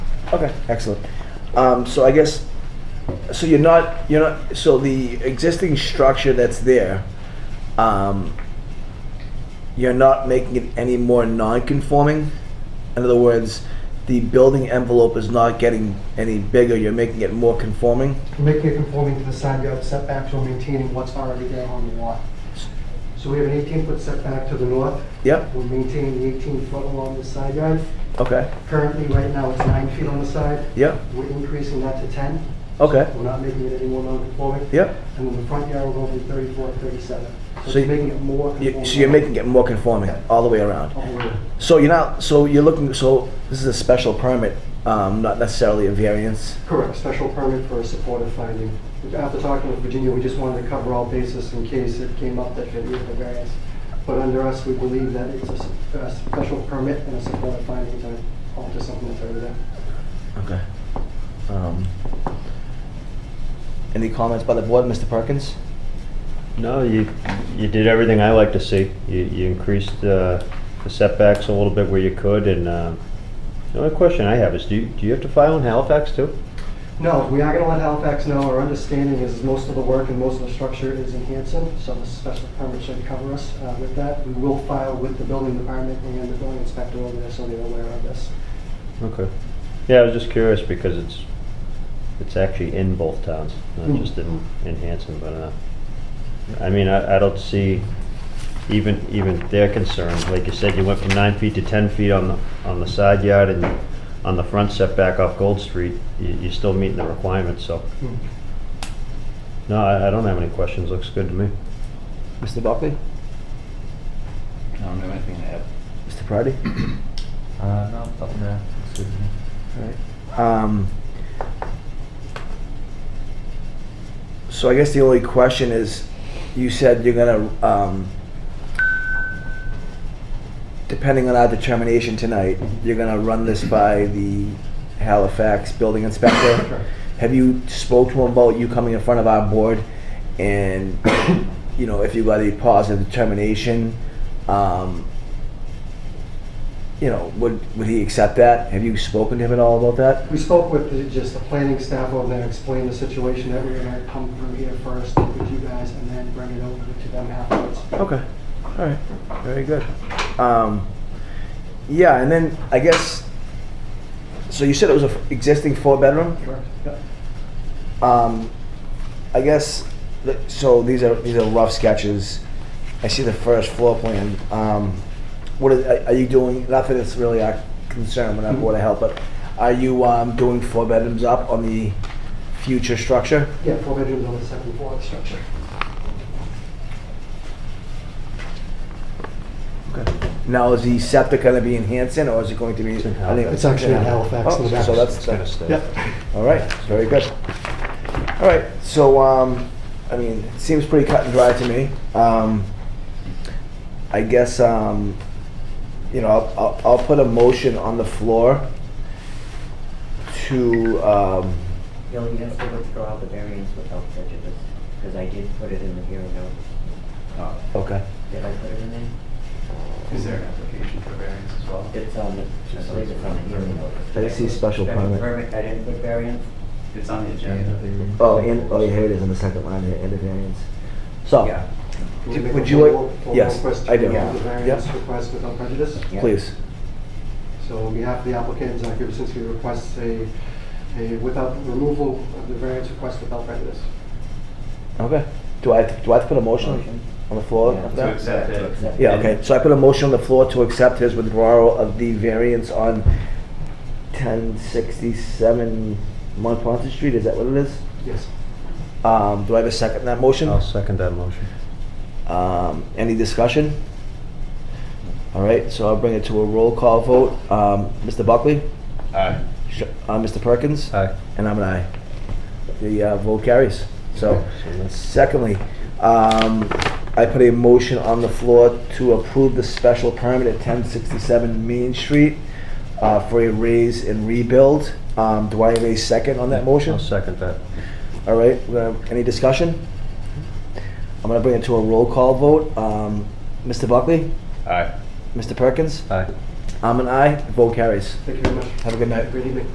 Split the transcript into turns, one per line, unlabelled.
Okay, excellent. Um, so I guess, so you're not, you're not, so the existing structure that's there, um, you're not making it any more non-conforming? In other words, the building envelope is not getting any bigger, you're making it more conforming?
Making it conforming to the side yard setbacks while maintaining what's already there on the lot. So we have an 18-foot setback to the north.
Yep,
We're maintaining the 18-foot along the side yard.
okay,
Currently, right now, it's nine feet on the side.
yep,
We're increasing that to 10.
okay,
We're not making it any more non-conforming.
yep.
And then the front yard, we're going from 34 to 37.
So
So
you-
it's making it more
You-
conforming.
So you're making it more conforming all the way around?
Oh, we're-
So you're not, so you're looking, so this is a special permit, um, not necessarily a variance?
Correct, special permit for a supportive finding. After talking with Virginia, we just wanted to cover all bases in case it came up that it needed a variance. But under us, we believe that it's a s- a special permit and a supportive finding to alter something that's already there.
Okay. Um, Any comments by the board, Mr. Perkins?
No, you, you did everything I like to see. You, you increased uh, the setbacks a little bit where you could, and um, the only question I have is, do you, do you have to file in Halifax too?
No, we are going to let Halifax know, our understanding is most of the work and most of the structure is in Hanson, so the special permit should cover us uh, with that. We will file with the building department and the building inspector over there so they're aware of this.
Okay. Yeah, I was just curious because it's, it's actually in both towns, not
Mm.
just in, in Hanson, but, uh, I mean, I, I don't see even, even their concern. Like you said, you went from nine feet to ten feet on the, on the side yard and on the front setback off Gold Street, you, you're still meeting the requirements, so.
Hmm.
No, I, I don't have any questions. Looks good to me.
Mr. Buckley?
I don't have anything to add.
Mr. Prady?
Uh, no, nothing to add. Excuse me.
Alright. Um, So I guess the only question is, you said you're gonna, um, depending on our determination tonight, you're gonna run this by the Halifax building inspector? Have you spoke to him about you coming in front of our board and, you know, if you got a positive determination, um, you know, would, would he accept that? Have you spoken to him at all about that?
We spoke with the- just the planning staff over there, explained the situation that we were gonna come through here first with you guys and then bring it over to them afterwards.
Okay, all right, very good. Um, yeah, and then I guess, so you said it was an existing four-bedroom?
Correct. Yep.
Um, I guess, the- so these are, these are rough sketches. I see the first floor plan. Um, what are, are- are you doing, not that it's really our concern, we're not Board of Health, but are you, um, doing four bedrooms up on the future structure?
Yeah, four bedrooms on the second floor of the structure.
Now, is the septic gonna be in Hanson, or is it going to be?
It's in
I think
Halifax.
It's actually in Halifax, in the
Oh,
back.
So that's,
It's gonna
that's,
stay.
all right, very good. All right, so, um, I mean, it seems pretty cut and dry to me. Um, I guess, um, you know, I'll, I'll, I'll put a motion on the floor to, um,
Bill, you have to withdraw the variance without prejudice, because I did put it in the hearing note.
okay,
Did I put it in there?
Is there an application for variance as well?
It's on the, I believe it's on the hearing note.
I see special permit.
I didn't put variance?
It's on the agenda.
oh, and, oh, yeah, here it is on the second line here, end of variance. So,
Yeah,
Can we
Would
make a
you like-
formal- formal
yes,
request
I
to
do.
approve The
Yeah.
variance
Yep.
request without prejudice.
Yeah.
please,
So on behalf of the applicant, Zach Gibson's here requests a, a without, removal of the variance request without prejudice.
okay. Do I, do I have to put a motion
Motion.
on the floor?
Yeah.
of
To
that?
accept
To
it.
accept.
Yeah, okay, so I put a motion on the floor to accept his withdrawal of the variance on ten sixty-seven Montponton Street, is that what it is?
Yes.
Um, do I have a second on that motion?
I'll second that motion.
Um, any discussion? All right, so I'll bring it to a roll call vote. Um, Mr. Buckley?
Aye.
Sh- Uh, Mr. Perkins?
Aye.
And I'm an aye. The, uh, vote carries, so.
So that's-
Secondly, um, I put a motion on the floor to approve the special permit at ten sixty-seven Main Street uh, for a raise and rebuild. Um, do I have a second on that motion?
I'll second that.
All right, we're gonna- any discussion? I'm gonna bring it to a roll call vote. Um, Mr. Buckley?
Aye.
Mr. Perkins?
Aye.
I'm an aye, vote carries.
Thank you very much.
Have a good night.
Good evening.